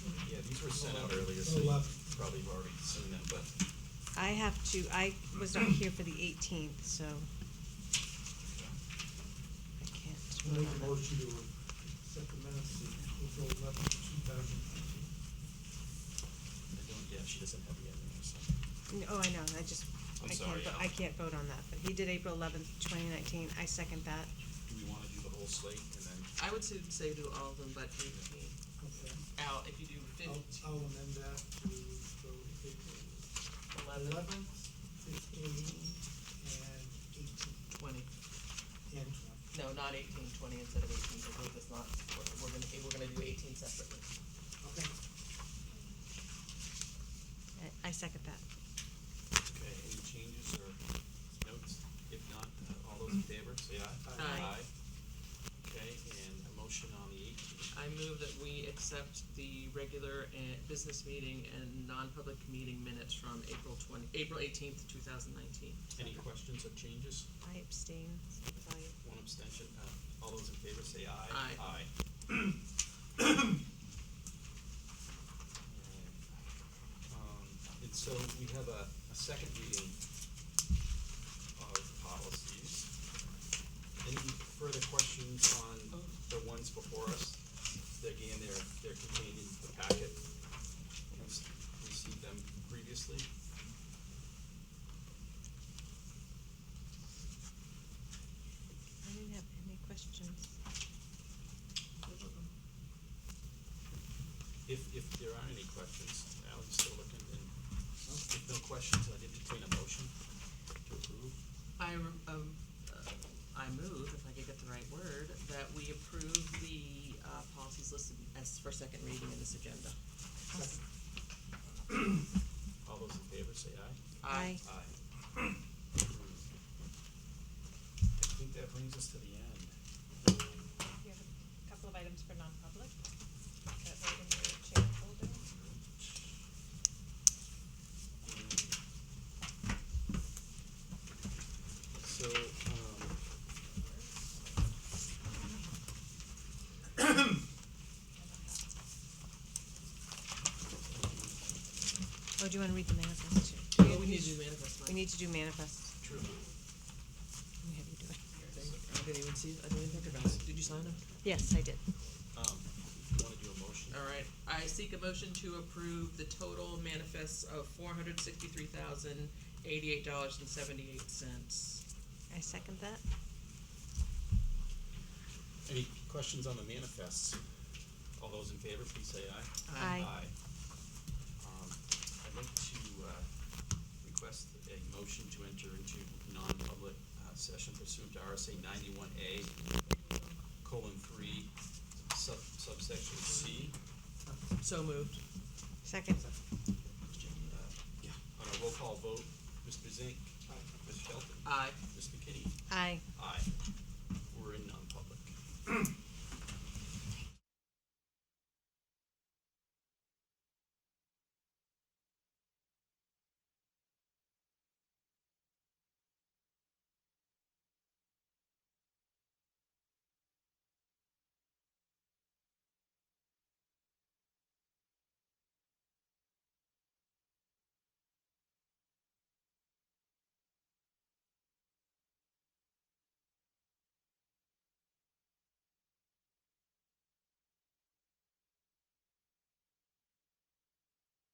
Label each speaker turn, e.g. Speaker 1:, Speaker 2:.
Speaker 1: were sent out earlier, so you
Speaker 2: Eleven.
Speaker 1: probably have already seen them, but
Speaker 3: I have to, I was not here for the eighteenth, so I
Speaker 2: I'll
Speaker 3: can't.
Speaker 2: Make a motion to accept the minutes of April eleventh, two thousand fifteen.
Speaker 1: I don't, yeah, she doesn't have the other, so.
Speaker 3: N- Oh, I know, I just,
Speaker 1: I'm
Speaker 3: I
Speaker 1: sorry,
Speaker 3: can't, vo-
Speaker 1: Al.
Speaker 3: I can't vote on that, but he did April eleventh, twenty nineteen, I second that.
Speaker 1: Do we wanna do the whole slate and then,
Speaker 4: I would say, say do all of them, but eighteen,
Speaker 2: Okay,
Speaker 4: out, if you do
Speaker 2: I'll,
Speaker 4: fifteen,
Speaker 2: I'll amend that to go April
Speaker 4: eleven,
Speaker 2: eleventh, fifteen, and eighteen, and
Speaker 4: twenty.
Speaker 2: twenty.
Speaker 4: No, not eighteen, twenty instead of eighteen, because it's not, we're- we're gonna, we're gonna do eighteen separately.
Speaker 2: Okay,
Speaker 3: I, I second that.
Speaker 1: okay, any changes or notes? If not, uh, all those in favor, say aye.
Speaker 4: Aye.
Speaker 1: Okay, and a motion on the eighteenth,
Speaker 4: I move that we accept the regular and business meeting and non-public meeting minutes from April twenty, April eighteenth, two thousand nineteen.
Speaker 1: any questions or changes?
Speaker 3: I abstain, sorry.
Speaker 1: One abstention, uh, all those in favor say aye.
Speaker 4: Aye.
Speaker 1: Aye. Um, and so we have a, a second reading of policies. Any further questions on the ones before us? Again, they're, they're contained in the packet. We've s- received them previously.
Speaker 3: I didn't have any questions.
Speaker 1: If, if there are any questions, Al, you still looking, and if no questions, I'd entertain a motion to approve.
Speaker 4: I, re- um, uh, I move, if I could get the right word, that we approve the, uh, policies listed as for second reading in this agenda.
Speaker 2: second,
Speaker 1: All those in favor say aye.
Speaker 3: Aye.
Speaker 1: Aye. I think that brings us to the end.
Speaker 5: We have a couple of items for non-public that were in your chair folder.
Speaker 1: So, um.
Speaker 3: Oh, do you wanna read the manifest too?
Speaker 4: Well, we need to do manifest, Mike.
Speaker 3: We need to do manifest.
Speaker 1: True.
Speaker 3: Let me have you do it.
Speaker 4: I didn't even see, I didn't even think about it. Did you sign up?
Speaker 3: Yes, I did.
Speaker 1: Um, if you wanna do a motion?
Speaker 4: All right, I seek a motion to approve the total manifests of four hundred sixty-three thousand, eighty-eight dollars and seventy-eight cents.
Speaker 3: I second that.
Speaker 1: Any questions on the manifests? All those in favor, please say aye.
Speaker 3: Aye.
Speaker 1: Um, I'd like to, uh, request a motion to enter into non-public, uh, session pursuant to RSA ninety-one A, colon three, sub, subsection C.
Speaker 4: So moved.
Speaker 3: Second.
Speaker 1: Uh, Yeah. On a roll call vote, Mr. Zink,
Speaker 2: aye.
Speaker 1: Ms. Shelton,
Speaker 4: Aye.
Speaker 1: Ms. McKinney,
Speaker 3: Aye.
Speaker 1: aye.